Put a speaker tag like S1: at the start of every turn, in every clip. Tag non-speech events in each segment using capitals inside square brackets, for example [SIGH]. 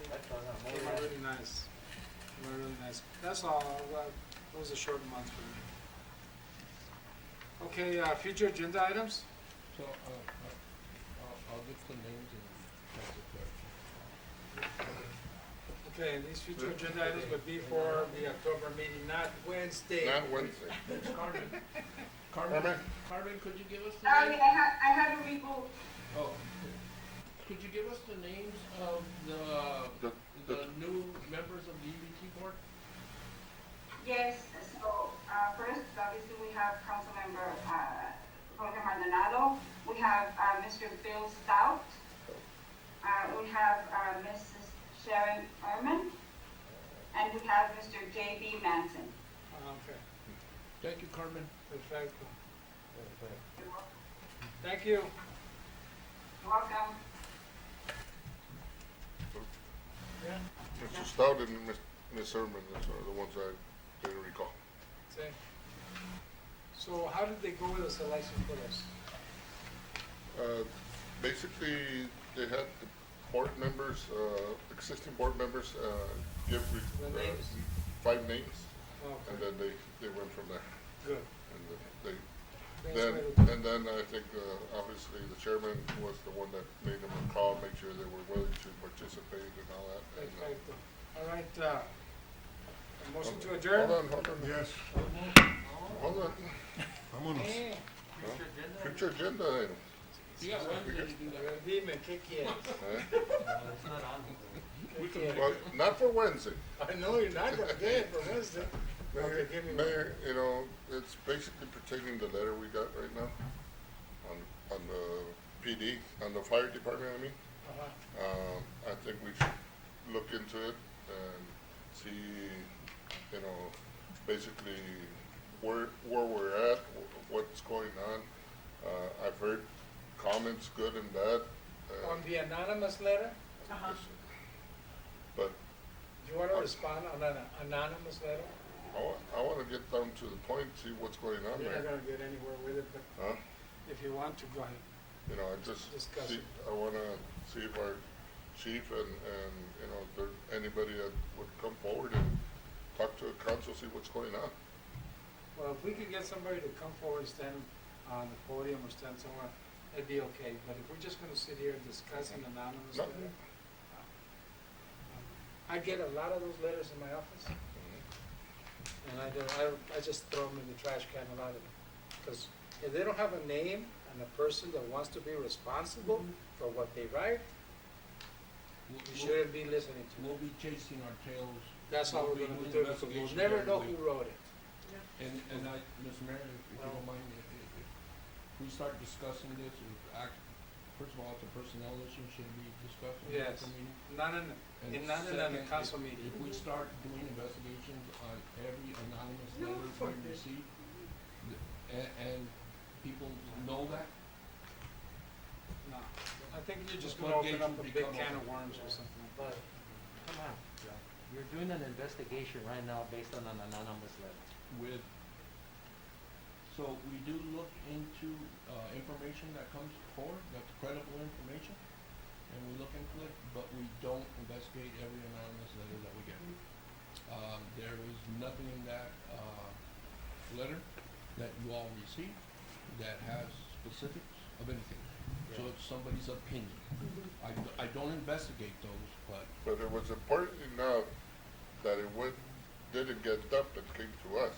S1: They were really nice. They were really nice. That's all, well, it was a short month for me. Okay, uh, future agenda items?
S2: So, uh, uh, I'll, I'll get the names and that's it there.
S1: Okay, these future agenda items would be for the October meeting, not Wednesday.
S3: Not Wednesday.
S2: Carmen, Carmen,
S3: Carmen?
S2: Carmen, could you give us the
S4: Sorry,
S2: name?
S4: I had, I had to reboot.
S2: Oh, could you give us the names of the,
S3: The-
S2: the new members of the EBT board?
S4: Yes, so, uh, first, obviously, we have Councilmember, uh, Jorge Maldonado. We have, uh, Mr. Bill Stout. Uh, we have, uh, Mrs. Sharon Ehrman. And we have Mr. J.B. Manson.
S1: Uh, Okay,
S2: Thank you, Carmen.
S1: perfect.
S4: You're wel-
S1: Thank you.
S4: you're welcome.
S3: Mr. Stout and Miss- Miss Herman are the ones I didn't recall.
S1: Say. So how did they go with the selection for us?
S3: Uh, Basically, they had the board members, uh, existing board members, uh, give re-
S1: The
S3: uh,
S1: names?
S3: five names, and
S1: Okay,
S3: then they, they went from there.
S1: good.
S3: And then
S1: Thanks for
S3: they,
S1: the-
S3: then, and then I think, uh, obviously, the chairman was the one that made them a call, make sure they were willing to participate and all that. and, uh,
S1: Perfecto. All right, uh, a motion to
S3: hold
S1: adjourn?
S3: on, Hold on,
S5: Yes,
S3: hold on,
S5: vámonos.
S1: Eh,
S3: future agenda item.
S2: You got Wednesday to do that.
S1: Dime, ¿qué quieres?
S3: eh?
S1: ¿Qué quieres?
S3: Well, not for Wednesday.
S1: I know you're not gonna get it for Wednesday. Okay,
S3: Mayor,
S1: give me one.
S3: Mayor, you know, it's basically pertaining the letter we got right now on, on the PD, on the fire department, I mean.
S1: Uh-huh.
S3: Um, I think we should look into it and see, you know, basically where, where we're at, wh- what's going on. Uh, I've heard comments, good and bad. uh,
S1: On the Uh-huh. anonymous letter,
S3: But
S1: do you wanna respond on an anonymous letter?
S3: I wa- I wanna get down to the point, see what's going on
S1: You're not
S3: there,
S1: gonna get anywhere with it, but
S3: huh?
S1: if you want to, go ahead.
S3: You know, I just,
S1: Discuss
S3: see-
S1: it.
S3: I wanna see if our chief and, and, you know, if there, anybody that would come forward and talk to the council, see what's going on.
S1: Well, if we could get somebody to come forward and stand on the podium or stand somewhere, that'd be okay. But if we're just gonna sit here and discuss an anonymous
S3: No.
S1: letter. uh, I get a lot of those letters in my office. And I don't, I, I just throw them in the trash can a lot of them. Because if they don't have a name and a person that wants to be responsible for what they write, you
S2: We'll- we'll-
S1: shouldn't be listening to
S2: We'll
S1: them.
S2: be chasing our tails.
S1: Mm-hmm. That's how we're
S2: We'll be
S1: gonna
S2: doing
S1: do it.
S2: investigation
S1: We'll never know
S2: every
S1: who
S2: week.
S1: wrote it.
S2: And, and I, Ms. Mayor, if you don't mind, if, if, if we start discussing this, if act, first of all, it's a personnel issue, should be discussed in
S1: Yes.
S2: the meeting.
S1: Not in,
S2: And
S1: in, not in a
S2: second,
S1: council
S2: if-
S1: meeting.
S2: If we start doing investigations on every anonymous letter we receive, and, and people know that,
S1: No. I think you're just
S2: The
S1: gonna open
S2: floodgates
S1: up a
S2: will
S1: big
S2: become
S1: can of
S2: open.
S1: worms or something.
S6: But, come on, you're doing an investigation right now based on an anonymous letter.
S2: with, so we do look into, uh, information that comes forward, that's credible information, and we look into it, but we don't investigate every anonymous letter that we get. Um, there was nothing in that, uh, letter that you all received that has specifics of anything. So it's somebody's opinion. I, d- I don't investigate those, but
S3: But it was important enough that it would, didn't get dumped and came to us.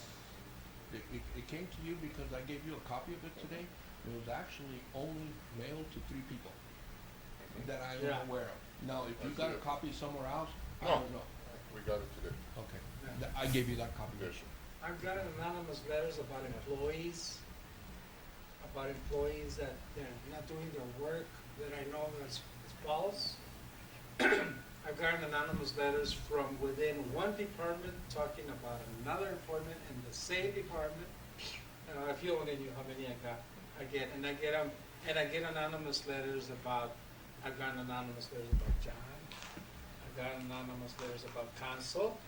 S2: It, it, it came to you because I gave you a copy of it today. It was actually only mailed to three people that I
S1: Yeah.
S2: am aware of. Now, if you
S3: I
S2: got
S3: see
S2: a
S3: it.
S2: copy somewhere else, I
S3: No.
S2: don't know.
S3: We got it today.
S2: Okay,
S1: Yeah.
S2: Th- I gave you that copy.
S3: Yes,
S1: I've gotten anonymous letters about employees, about employees that they're not doing their work, that I know is, is false. [CLEARS THROAT] I've gotten anonymous letters from within one department talking about another department in the same department. And if you only knew how many I got, I get, and I get them, and I get anonymous letters about, I've gotten anonymous letters about John. I've gotten anonymous letters about council,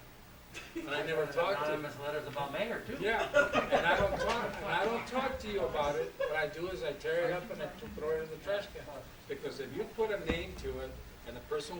S1: and I never talked to them.
S6: Anonymous letters about mayor too.
S1: Yeah, and I don't talk, and I don't talk to you about it, what I do is I tear it up and I throw it in the trash can. Because if you put a name to it, and the person